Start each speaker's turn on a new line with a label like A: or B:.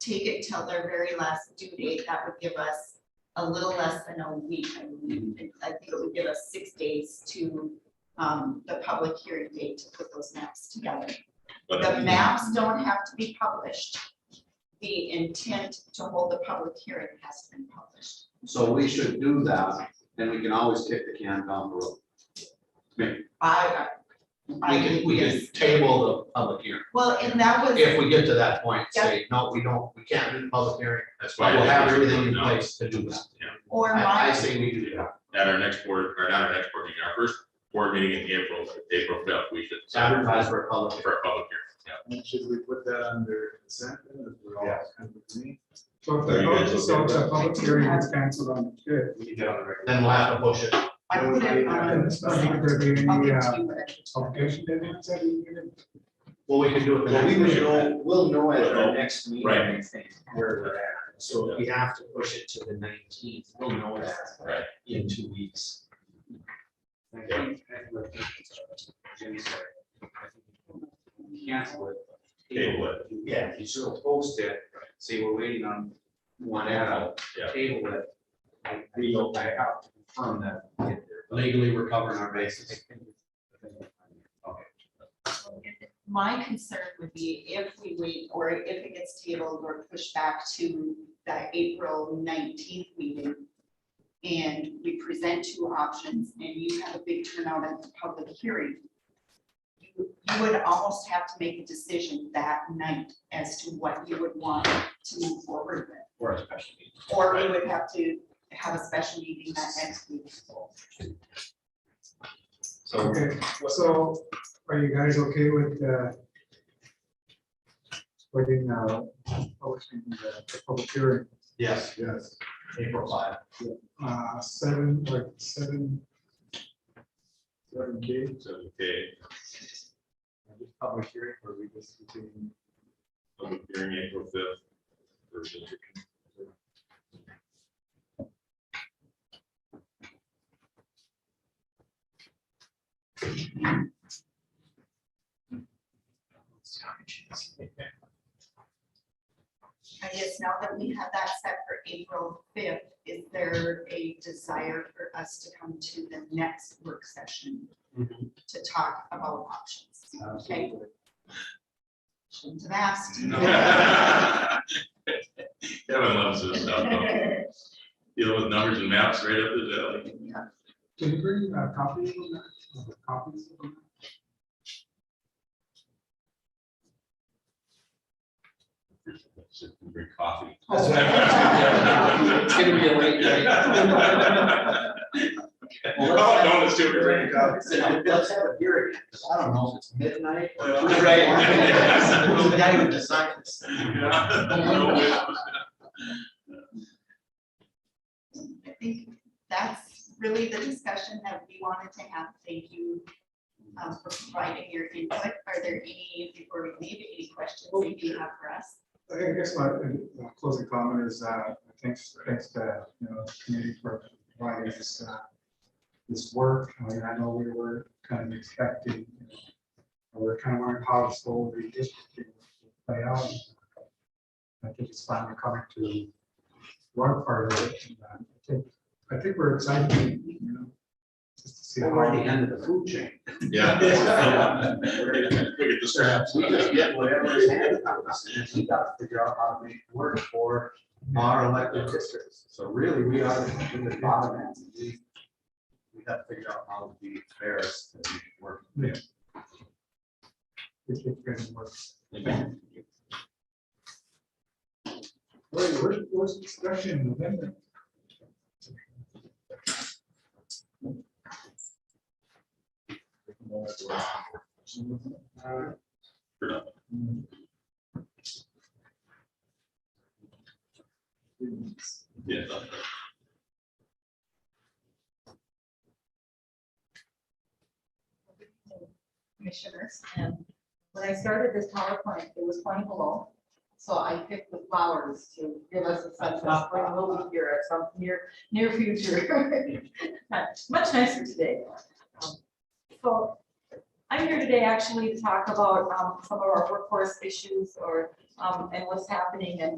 A: take it till their very last due date, that would give us a little less than a week, I believe. And
B: Mm-hmm.
A: I think it would give us six days to, um, the public hearing date to put those maps together.
C: But uh,
A: The maps don't have to be published. The intent to hold the public hearing has been published.
B: So we should do that, and we can always kick the can down the road.
A: I,
B: We can, we can table the public hearing,
A: well, and that was.
B: if we get to that point, say, no, we don't, we can't do the public hearing,
C: That's why.
B: but we'll
C: I
B: have
C: think we should
B: everything in
C: vote no.
B: place to do that.
A: Or
B: I, I
A: my,
B: say we do that,
C: At our next board, or not our next board meeting, our first board meeting in April, April fifth, we should.
B: advertise for a public hearing.
C: For a public
D: And Should we put that under consent then, if we're all
B: Yeah.
D: kind of agreeing?
E: So if
C: Are
E: the,
C: you guys
E: public- so if
C: okay
E: the public hearing is canceled on the fifth,
D: We can get on the regular.
B: Then we'll have to push it.
A: I put it on.
E: It's not like there'd be any,
A: I'll give it
E: uh,
A: to you, but I can tell you.
E: publication deadline set, you need it.
B: Well, we can do it the
D: Well, we
B: next
D: would
B: meeting.
D: know, we'll know at our next meeting, I
C: Right.
D: think, where we're at, so if we have to push it to the nineteenth, we'll know that.
C: Right.
D: In two weeks. I think- I think what Jim said, I think we Cancel it.
C: Table it.
D: Yeah, you should post it, say we're waiting on one out,
C: Yeah.
D: table it. and We go back out to confirm that. we get there.
B: Legally, we're covering our bases.
D: Okay.
A: My concern would be if we wait, or if it gets tabled or pushed back to that April nineteenth meeting. And we present two options and you have a big turnout at the public hearing. You you would almost have to make a decision that night as to what you would want to move forward with.
D: Or a special meeting.
A: Or we would have to have a special meeting that next week.
D: So
E: Okay, so are you guys okay with, uh, putting, uh, posting the the public hearing,
B: Yes,
E: yes,
B: April five.
E: uh, seven, like, seven, seven K,
C: hearing. So, okay,
E: just public hearing, or we just continue?
C: public hearing April fifth.
A: I guess now that we have that set for April fifth, is there a desire for us to come to the next work session to talk about options? Okay. Shouldn't have asked.
C: Kevin loves this stuff, though. deal with numbers and maps right up his alley.
E: Can you bring a copy of that, Or copies of that?
C: Bring coffee.
B: It's gonna be a late
C: Oh, no, it's too great.
B: Let's have a hearing, I don't know if it's midnight. or-
C: Right.
B: Yes. We gotta even decide this.
A: I think that's really the discussion that we wanted to have. Thank you um, for providing your input. Are there any, before we leave, any questions that you have for us?
E: I guess my uh, uh, closing comment is, uh, thanks, thanks to, you know, the committee for providing this, uh, this work. I mean, I know we were kind of expecting, you know, we we're kind of wondering how this whole redistricting would play out. I think it's finally coming to one part of it. and, uh, I think, I think we're excited, you know, just to see
B: Well, We're at the
E: how,
B: end of the food chain.
C: Yeah. Look at the scraps.
B: We just get whatever is handed to us, and we gotta figure out how to make it work for our elected districts. So really, we are in the bottom end. We we gotta figure out how to be fair and work.
E: if it can work. Wait, where's, where's the discussion in November? Uh,
C: Yeah.
A: commissioners, and when I started this PowerPoint, it was twenty below. So I picked the flowers to give us a sense of spring will be here at some near, near future.
F: much nicer today. Um, So I'm here today actually to talk about um, some of our workforce issues or, um, and what's happening and